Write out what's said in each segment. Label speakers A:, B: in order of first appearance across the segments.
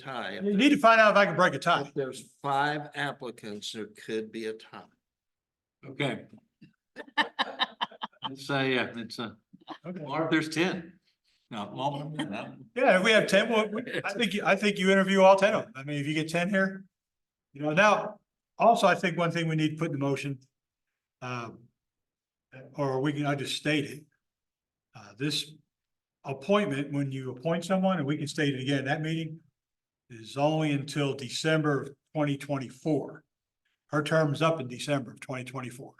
A: tie.
B: You need to find out if I can break a tie.
A: If there's five applicants, there could be a tie.
C: Okay. Let's say, yeah, it's a,
B: Okay.
C: or if there's ten. No, well, no.
B: Yeah, if we have ten, well, we- I think, you- I think you interview all ten of them. I mean, if you get ten here. You know, now, also, I think one thing we need to put in the motion. Um. Or we can, I just state it. Uh, this appointment, when you appoint someone, and we can state it again, that meeting. Is only until December of twenty twenty-four. Her term's up in December of twenty twenty-four.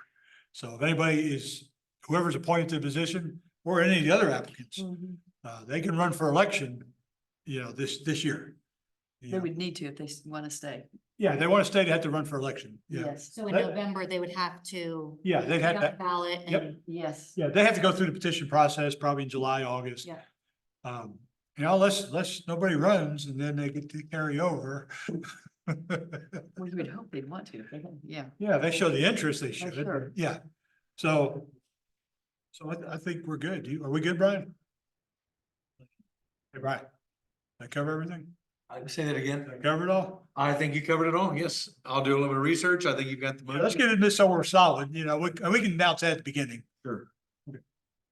B: So if anybody is, whoever's appointed to the position, or any of the other applicants. Uh, they can run for election, you know, this, this year. You
D: They
B: know,
D: would need to if they want to stay.
B: Yeah, they want to stay, they have to run for election. Yeah,
D: Yes,
E: So in
B: That-
E: November, they would have to.
B: yeah, they'd
E: put
B: have
E: up
B: that,
E: a Ballot
B: Yep.
E: and,
D: yes.
B: yeah, they have to go through the petition process probably in July, August.
E: Yeah.
B: Um, you know, unless, unless nobody runs and then they get to carry over.
D: We would hope they'd want to, but yeah.
B: Yeah, they show the interest they should,
D: sure.
B: yeah. So, so I, I think we're good. You- Are we good, Brian? Hey, Brian, did I cover everything?
C: I'd say that again.
B: Did I cover it all?
C: I think you covered it all. Yes, I'll do a little bit of research. I think you've got the.
B: Yeah, Let's get into somewhere solid, you know, we, and we can announce that at the beginning.
C: Sure.
B: Okay.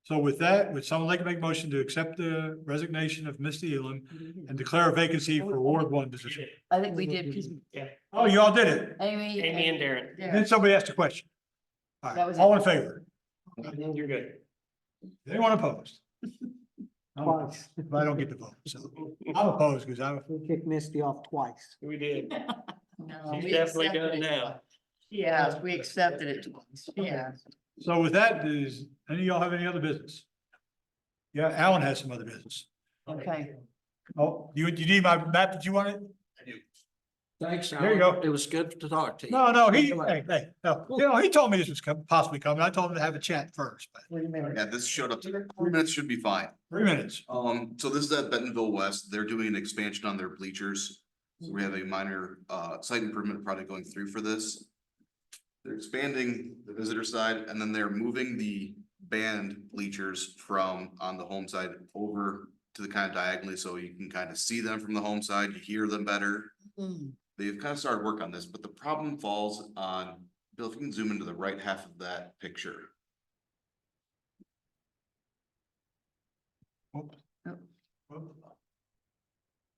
B: So with that, would someone like to make a motion to accept the resignation of Misty Elam and declare a vacancy for Ward One position?
D: I think we did. 'cause
F: Yeah,
B: Oh, you all did it.
D: Amy.
F: Amy and Darren,
B: Then
D: Darren,
B: somebody asked a question. All
D: That
B: right,
D: was
B: all
D: it.
B: in favor?
F: and then Mm-hmm, you're good.
B: Anyone opposed? I'm opposed, But I don't get to vote, so I'm opposed because I'm,
G: We kicked Misty off twice.
F: We did.
D: no,
F: She's
D: uh, we
F: definitely
D: accepted
F: done
D: it.
F: now.
D: Yeah, we accepted it. twice. Yeah.
B: so with that, does any of y'all have any other business? Yeah, Alan has some other business.
D: Okay.
B: Oh, you, you need my map? Did you want it?
A: Thanks,
B: There you
A: Alan.
B: go.
A: It was good to talk to you.
B: No, no, he,
A: Come on.
B: hey, hey, no, you know, he told me this was com- possibly coming. I told him to have a chat first, but
H: Yeah, this showed up, today. three minutes should be fine.
B: three minutes.
H: Um, so this is at Bentonville West, they're doing an expansion on their bleachers. So We have a minor, uh, site improvement project going through for this. They're expanding the visitor side and then they're moving the band bleachers from on the home side over to the kind of diagonally, so you can kind of see them from the home side, you hear them better.
D: Mm,
H: They've kind of started work on this, but the problem falls on, Bill, if you can zoom into the right half of that picture.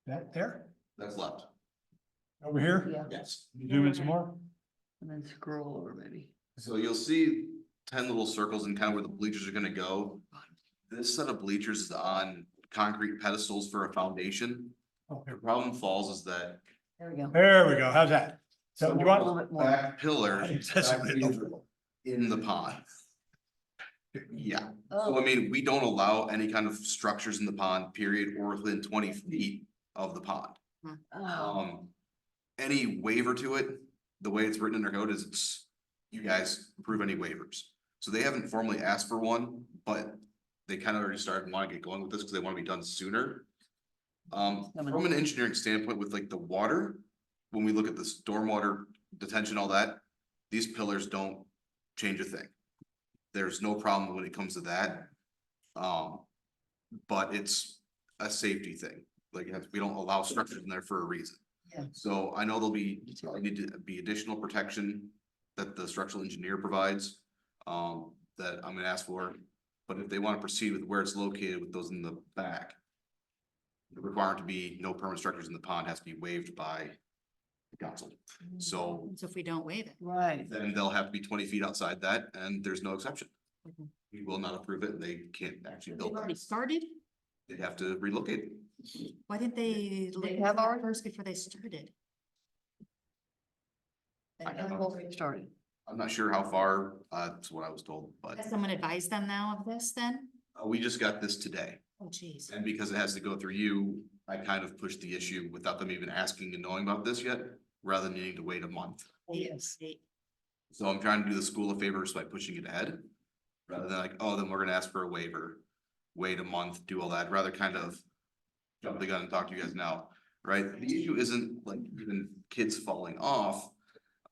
B: That there,
H: That's left.
B: over here,
D: Yeah,
H: Yes.
B: zoom in some more.
D: and then scroll over maybe.
H: So you'll see ten little circles and kind of where the bleachers are gonna go. This set of bleachers is on concrete pedestals for a foundation.
B: Oh,
H: The
B: here.
H: problem falls is that
D: There we go.
B: There we go. How's that? So you
D: A little
B: want,
D: bit more.
H: back pillar
B: That's a bit
H: is in the pond. Yeah, so I
D: Oh,
H: mean, we don't allow any kind of structures in the pond, period, or within twenty feet of the pond.
B: uh,
D: oh,
H: Um, any waiver to it, the way it's written in our code is it's, you guys approve any waivers. So they haven't formally asked for one, but they kind of already started wanting to get going with this because they want to be done sooner. Um, from an engineering standpoint with like the water, when we look at the stormwater detention, all that, these pillars don't change a thing. There's no problem when it comes to that. Um, but it's a safety thing like, that's- we don't allow structures in there for a reason.
D: Yeah.
H: So I know there'll be, probably need to be additional protection that the structural engineer provides, um, that I'm gonna ask for. But if they wanna proceed with where it's located with those in the back, the requirement to be no permanent structures in the pond has to be waived by the council. So
E: so if we don't waive it.
D: right.
H: then they'll have to be twenty feet outside that, and there's no exception. We will not approve it, and they can't actually
E: They've
H: build
E: already
H: that.
E: started?
H: They'd have to relocate. it.
E: Why didn't they? look
D: They
E: at
D: have
E: that
D: already-
E: First before they started.
D: They
H: I
D: have
H: don't
D: already started.
H: I'm not sure how far, uh, that's what I was told, but.
E: Has someone advised them now of this then?
H: Uh, we just got this today,
E: Oh, geez.
H: and because it has to go through you, I kind of pushed the issue without them even asking and knowing about this yet, rather than needing to wait a month.
D: Yes.
H: So I'm trying to do the school a favor just by pushing it ahead, rather than like, oh, then we're gonna ask for a waiver, wait a month, do all that, rather kind of jump the gun and talk to you guys now, right? The issue isn't like even kids falling off,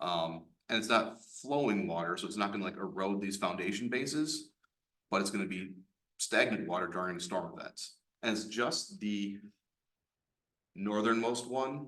H: um, and it's not flowing water, so it's not gonna like erode these foundation bases, but it's gonna be stagnant water during storm events, and it's just the northernmost one